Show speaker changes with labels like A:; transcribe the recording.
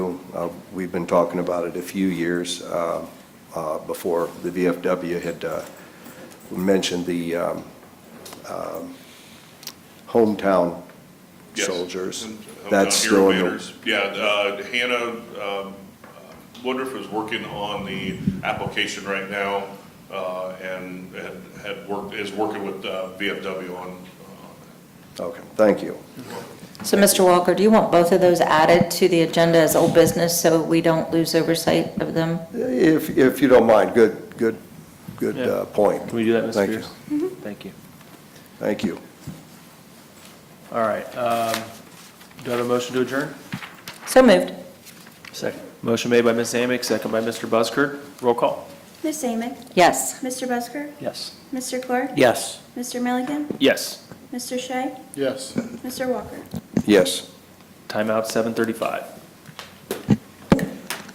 A: Uh, We've been talking about it a few years uh, uh, before the VFW had uh, mentioned the um, um, hometown
B: Yes.
A: soldiers.
B: And uh, hometown
A: That's
B: hero
A: still in the
B: banners. Yeah, uh, Hannah um, Woodruff is working on the application right now uh, and had- had worked, is working with uh, VFW on.
A: Okay, thank you.
C: So, Mr. Walker, do you want both of those added to the agenda as old business so we don't lose oversight of them?
A: If, if you don't mind, good, good, good
D: Yeah.
A: uh, point.
D: Can we do that, Ms.
A: Thank
D: Pierce?
A: you.
D: Thank you.
A: Thank you.
D: All right, um, do I have a motion to adjourn?
C: So moved.
D: Second. Motion made by Ms. Amick, second by Mr. Busker. Roll call.
E: Ms. Amick?
C: Yes.
E: Mr. Busker?
D: Yes.
E: Mr. Clark?
D: Yes.
E: Mr. Milliken?
D: Yes.
E: Mr. Shea? Yes. Mr. Walker?
A: Yes.
D: Timeout seven thirty-five.